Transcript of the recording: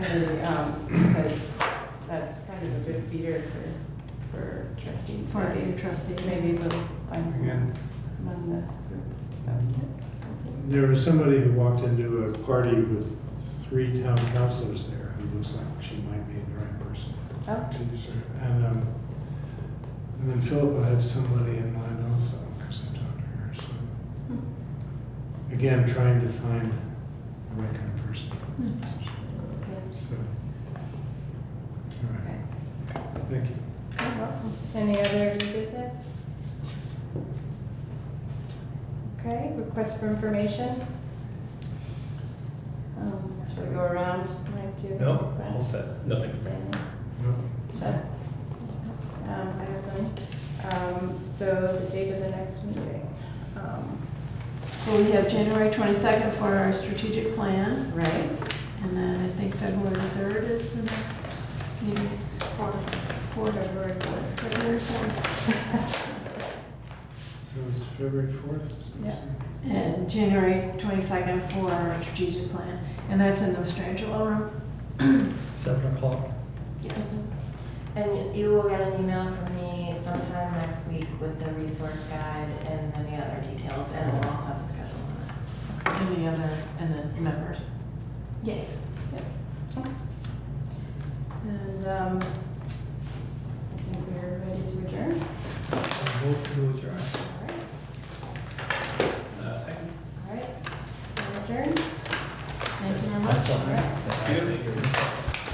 actually, um, because that's kind of a good feeder for, for trustees. for your maybe. trustee. Maybe we'll find Again. some among the group, so. we'll see. There was somebody who walked into a party with three town councilors there who looks like she might be the right person. Oh, to do so. And, um, and then Philippa had somebody in mind also, because I talked to her, so. Again, trying to find the right kind of person for this position, yeah, so. All okay. right, thank you. You're welcome. Any other new business? Okay, request for information? Um, Should we go around, Mike, do? you have No, all requests? set. Nothing for me. Stanley? Well, Sure. Um, I have none. Um, so the date of the next meeting, um, Well, we have January 22nd for our strategic plan, right? and then I think February 3rd is the next meeting. Four. Four, February 4th. February 4th. So it's February fourth? Yeah. And January 22nd for our strategic plan, and that's in the Strangelo room. Seven o'clock. Yes. And you will get an email from me sometime next week with the resource guide and then the other details, and we'll also have a schedule on that. And the other, and the members. Yay. And, um, I think we're ready to adjourn. I hope you Uh,